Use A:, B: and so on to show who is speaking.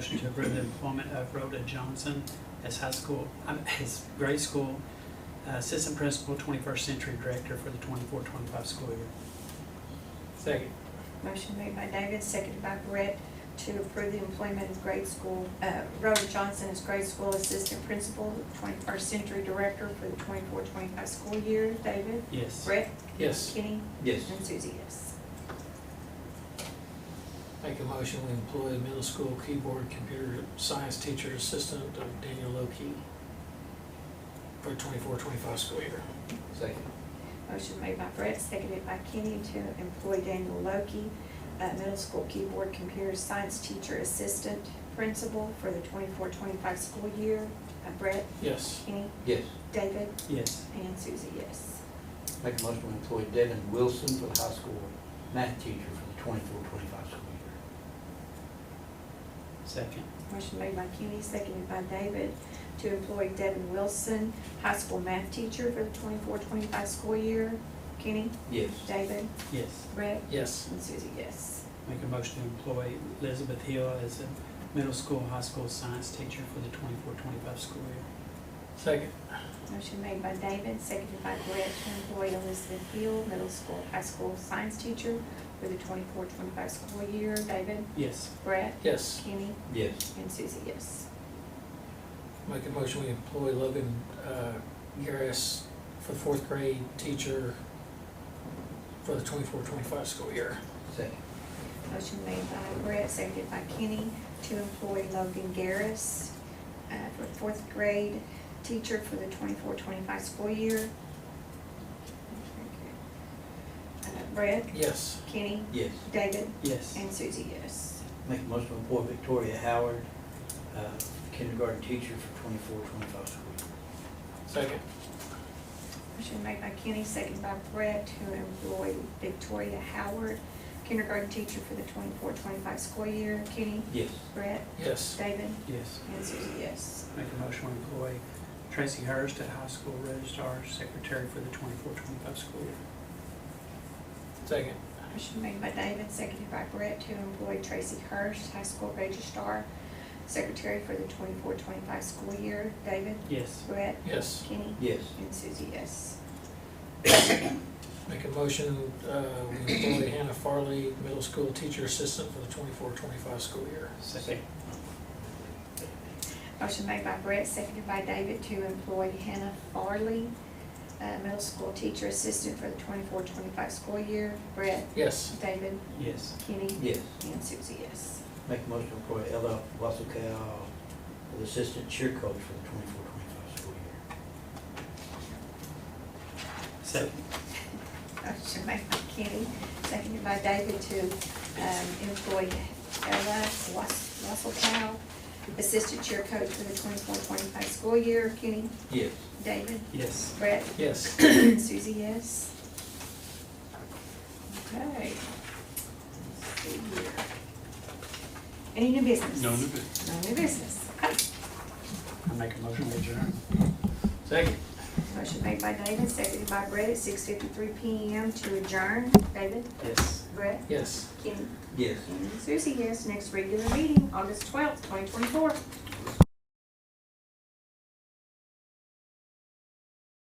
A: Motion to approve the employment of Rhoda Johnson as high school, um, as grade school uh, assistant principal, 21st century director for the 24-25 school year.
B: Second.
C: Motion made by David, seconded by Brett, to approve the employment of grade school, uh, Rhoda Johnson as grade school assistant principal, twenty-first century director for the 24-25 school year. David?
A: Yes.
C: Brett?
B: Yes.
C: Kenny?
B: Yes.
C: And Susie, yes.
B: Make a motion, we employ the middle school keyboard computer science teacher assistant of Daniel Lowkey for twenty-four, twenty-five school year. Second.
C: Motion made by Brett, seconded by Kenny, to employ Daniel Loki, uh, middle school keyboard computer science teacher assistant principal for the 24-25 school year. Uh, Brett?
B: Yes.
C: Kenny?
D: Yes,
C: David?
A: Yes.
C: And Susie, yes.
D: make a motion to employ Devin Wilson for the high school math teacher for the twenty-four, twenty-five school year.
A: Second.
C: Motion made by Kenny, seconded by David, to employ Devin Wilson, high school math teacher for the 24-25 school year. Kenny,
D: Yes,
C: David,
A: Yes.
C: Brett,
B: Yes.
C: and Susie, yes.
A: Make a motion to employ Elizabeth Hill as a middle school, high school science teacher for the 24-25 school year.
B: Second.
C: Motion made by David, seconded by Brett, to employ Elizabeth Hill, middle school, high school science teacher for the 24-25 school year. David,
A: Yes.
C: Brett,
B: Yes.
C: Kenny,
D: yes,
C: and Susie, yes.
B: Make a motion, we employ Logan, uh, Garris for the fourth grade teacher for the twenty-four, twenty-five school year.
D: second,
C: Motion made by Brett, seconded by Kenny, to employ Logan Garris uh, for fourth grade teacher for the 24-25 school year. Uh, Brett,
B: Yes.
C: Kenny,
D: yes.
C: David,
A: Yes.
C: and Susie, yes.
D: Make a motion to employ Victoria Howard, uh, kindergarten teacher for twenty-four, twenty-five school year.
B: Second.
C: Motion made by Kenny, seconded by Brett, to employ Victoria Howard, kindergarten teacher for the 24-25 school year. Kenny,
D: Yes,
C: Brett,
B: Yes.
C: David,
A: Yes.
C: and Susie, yes.
A: Make a motion to employ Tracy Hurst at high school registrar secretary for the 24-25 school year.
B: Second.
C: Motion made by David, seconded by Brett, to employ Tracy Hurst, high school registrar, secretary for the 24-25 school year. David,
A: Yes.
C: Brett,
B: Yes.
C: Kenny,
D: yes,
C: and Susie, yes.
B: Make a motion, uh, we employ Hannah Farley, middle school teacher assistant for the twenty-four, twenty-five school year.
A: Second.
C: Motion made by Brett, seconded by David, to employ Hannah Farley, uh, middle school teacher assistant for the 24-25 school year. Brett,
B: Yes.
C: David,
A: Yes.
C: Kenny,
D: yes.
C: and Susie, yes.
D: Make a motion to employ Ella Wasserkow for the assistant cheer coach for the twenty-four, twenty-five school year.
A: Second.
C: Motion made by Kenny, seconded by David to um, employ Ella Wass- Wasselkow, assistant cheer coach for the 24-25 school year. Kenny,
D: Yes,
C: David,
A: Yes.
C: Brett,
B: Yes.
C: Susie, yes. Okay. Let's see here. Any new business?
A: No new
C: No new business. Okay.
A: I make a motion to adjourn.
B: Second.
C: Motion made by David, seconded by Brett at six fifty-three PM to adjourn. David,
A: Yes.
C: Brett,
B: Yes.
C: Kenny,
D: yes.
C: and Susie, yes. Next regular meeting, August twelfth, twenty twenty-four.